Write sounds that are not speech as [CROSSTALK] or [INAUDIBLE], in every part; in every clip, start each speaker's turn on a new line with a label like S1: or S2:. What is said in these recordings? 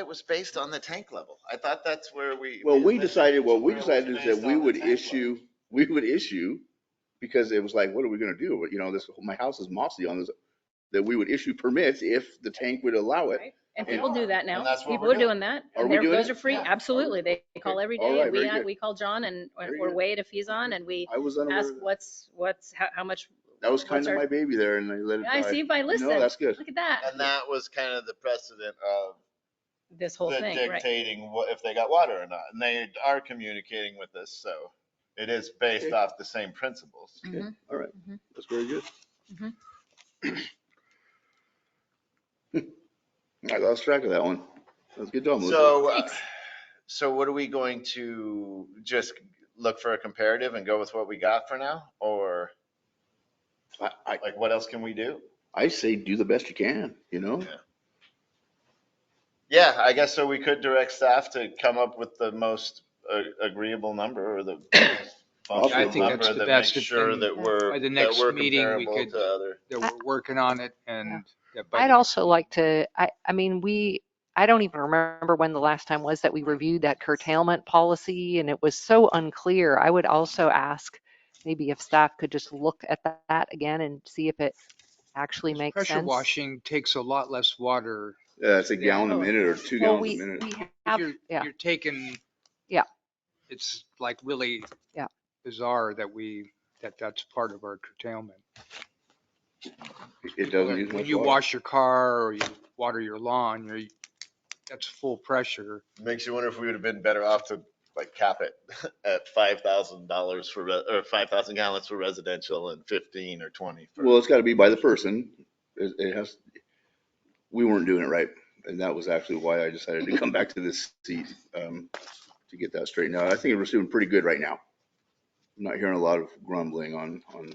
S1: It was based on the tank level. I thought that's where we.
S2: Well, we decided, what
S1: Where
S2: we
S1: it was
S2: decided is
S1: based
S2: that we
S1: on the
S2: would
S1: tank level.
S2: issue, we would issue, because it was like, what are we gonna do? But, You know, this, my house is mossy on this, that we would issue permits if the tank would allow it.
S3: Right. And
S2: And-
S3: people do that
S1: and
S3: now.
S1: that's what
S3: People
S1: we're
S3: are doing that.
S2: Are
S3: And
S2: we
S3: there-
S2: doing
S3: those
S2: it?
S3: are free.
S1: Yeah.
S3: Absolutely. They call every
S2: All
S3: day.
S2: right,
S3: We,
S2: very
S3: add-
S2: good.
S3: we call John and,
S2: Very
S3: or
S2: good.
S3: Wade if he's on and we
S2: I was unaware,
S3: ask
S2: of that
S3: what's, what's, how, how much.
S2: That was
S3: what's
S2: kind of my
S3: our-
S2: baby there and I let it
S3: I
S2: die.
S3: see if I listen.
S2: No, that's good.
S3: Look at that,
S1: And that was kind of the precedent of
S3: this whole
S1: the
S3: thing, right?
S1: dictating what, if they got water or not. And they are communicating with us, so it is based
S2: Okay.
S1: off the same principles.
S2: Okay,
S3: Mhm.
S2: All right,
S3: Mhm.
S2: that's very good.
S3: Mhm.
S2: [CLEARS THROAT] I lost track of that one. That's good job, Melissa.
S1: So, uh,
S3: Thanks.
S1: so what are we going to just look for a comparative and go with what we got for now? Or
S2: I, I,
S1: like, what else can we do?
S2: I say do the best you can, you know?
S1: Yeah. Yeah, I guess so. We could direct staff to come up with the most uh, agreeable number or the most
S2: Also- I
S1: functional
S2: think
S4: that's
S1: number
S4: the
S1: that makes
S4: best if
S1: sure
S4: then
S1: that we're,
S4: by the
S1: that
S4: next
S1: we're
S4: meeting we
S1: comparable
S4: could-
S1: to other.
S4: that
S5: I-
S4: we're working on it and. that by
S5: I'd
S4: the-
S5: also like to, I, I mean, we, I don't even remember when the last time was that we reviewed that curtailment policy and it was so unclear. I would also ask maybe if staff could just look at tha- that again and see if it actually makes sense.
S4: Pressure washing takes a lot less water.
S2: Yeah, it's a
S4: Yeah.
S2: Uh, gallon a minute or two
S5: Well,
S2: gallons
S5: we,
S2: a minute.
S5: we
S4: If
S5: have,
S4: You're,
S5: yeah.
S4: you're taking.
S5: Yeah.
S4: It's like really.
S5: Yeah.
S4: Bizarre that we, that that's part of our curtailment.
S2: It doesn't use
S4: When
S2: much
S4: you
S2: water.
S4: wash your car or you water your lawn, you're, that's full pressure.
S1: Makes you wonder if we would have been better off to like cap it [LAUGHS] at five thousand dollars for, re- or five thousand gallons for residential and fifteen or twenty for.
S2: Well, it's gotta be by the person. It, it has, we weren't doing it right. And that was actually why I decided to come back to this seat, um, to get that straightened out. I think we're doing pretty good right now. I'm not hearing a lot of grumbling on, on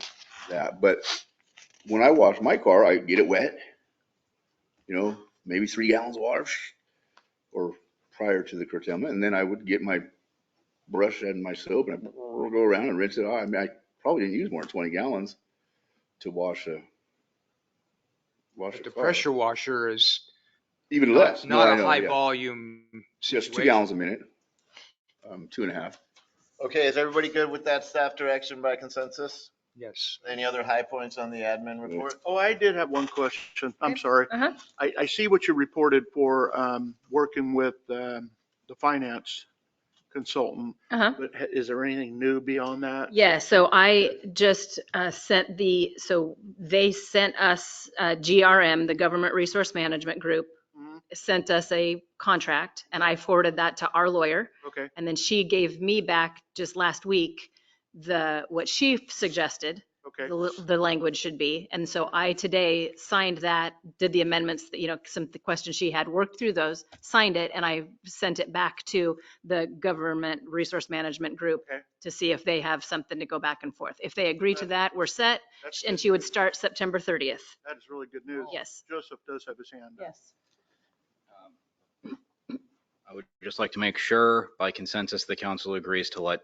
S2: that, but when I wash my car, I get it wet. You know, maybe three gallons of water or prior to the curtailment, and then I would get my brush and my soap and I'd go around and rinse it off. I mean, I probably didn't use more than twenty gallons to wash a wash a
S4: But the
S2: car.
S4: pressure washer is
S2: Even less.
S4: not
S2: No, I
S4: not a
S2: know,
S4: high
S2: yeah.
S4: volume
S2: Just two
S4: situation.
S2: gallons a minute, um, two and a half.
S1: Okay, is everybody good with that staff direction by consensus?
S4: Yes.
S1: Any other high points on the admin report?
S6: Oh, I did have one question. I'm
S3: Okay.
S6: sorry.
S3: Uh-huh.
S6: I, I see what you reported for um, working with um, the finance consultant.
S3: Uh-huh.
S6: But ha- is there anything new beyond that?
S3: Yeah, so I just uh, sent the, so they sent us, uh, GRM, the Government Resource Management Group,
S2: Mm-hmm.
S6: Mhm.
S3: sent us a contract and I forwarded that to our lawyer.
S6: Okay,
S3: And then she gave me back just last week, the, what she suggested
S6: okay.
S3: the, l- the language should be. And so I today signed that, did the amendments, that you know, some, the questions she had, worked through those, signed it, and I sent it back to the Government Resource Management Group
S6: Okay.
S3: to see if they have something to go back and forth. If they agree to that, we're set,
S6: That's
S3: and
S6: good
S3: she would
S6: news.
S3: start September 30th.
S6: That is really good news.
S3: Yes.
S6: Joseph does have his hand up.
S3: Yes.
S7: I would just like to make sure by consensus, the council agrees to let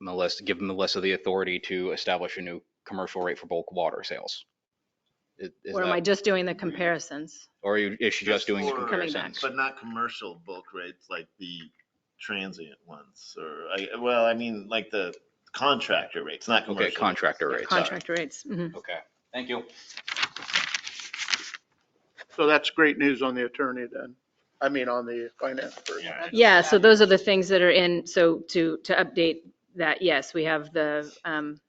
S7: Melissa, give Melissa the authority to establish a new commercial rate for bulk water sales. Is- is
S3: Or am I
S7: that- Mm-hmm.
S3: just doing the comparisons?
S7: Or are you- is she just doing the
S1: Coming
S7: comparisons?
S1: But not commercial bulk rates like the transient ones or, I, well, I mean, like the contractor rates, not commercial.
S7: Okay,
S1: rates.
S7: contractor rates. all right.
S3: Contract rates. mhm.
S7: Okay, thank you.
S6: So that's great news on the attorney then. I mean, on the finance person.
S1: Yeah.
S3: Yeah, so those are the things that are in, so to, to update that, yes, we have the, um,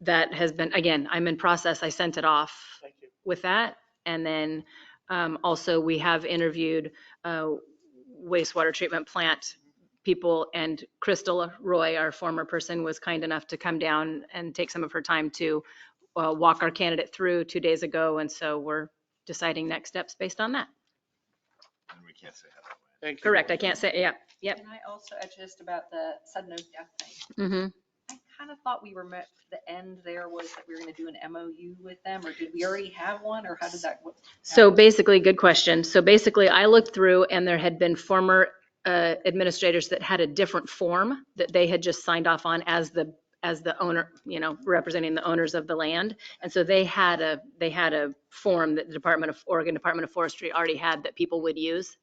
S3: that has been, again, I'm in process, I sent it off
S6: Thank you.
S3: with that. And then um, also, we have interviewed uh, wastewater treatment plant people, and Crystal Roy, our former person, was kind enough to come down and take some of her time to uh, walk our candidate through two days ago, and so we're deciding next steps based on that.
S1: And we can't say how that went.
S6: Thank you.
S3: Correct, I can't say, yeah, yep.
S8: Can I also add just about the sudden no death thing?
S3: mhm.
S8: I kind of thought we were met, the end there was that we were going to do an MOU with them, or did we already have one, or how did that? what-
S3: So basically, good question. So basically, I looked through and there had been former uh, administrators that had a different form that they had just signed off on as the, as the owner, you know, representing the owners of the land. And so they had a, they had a form that the Department of, Oregon Department of Forestry already had that people would use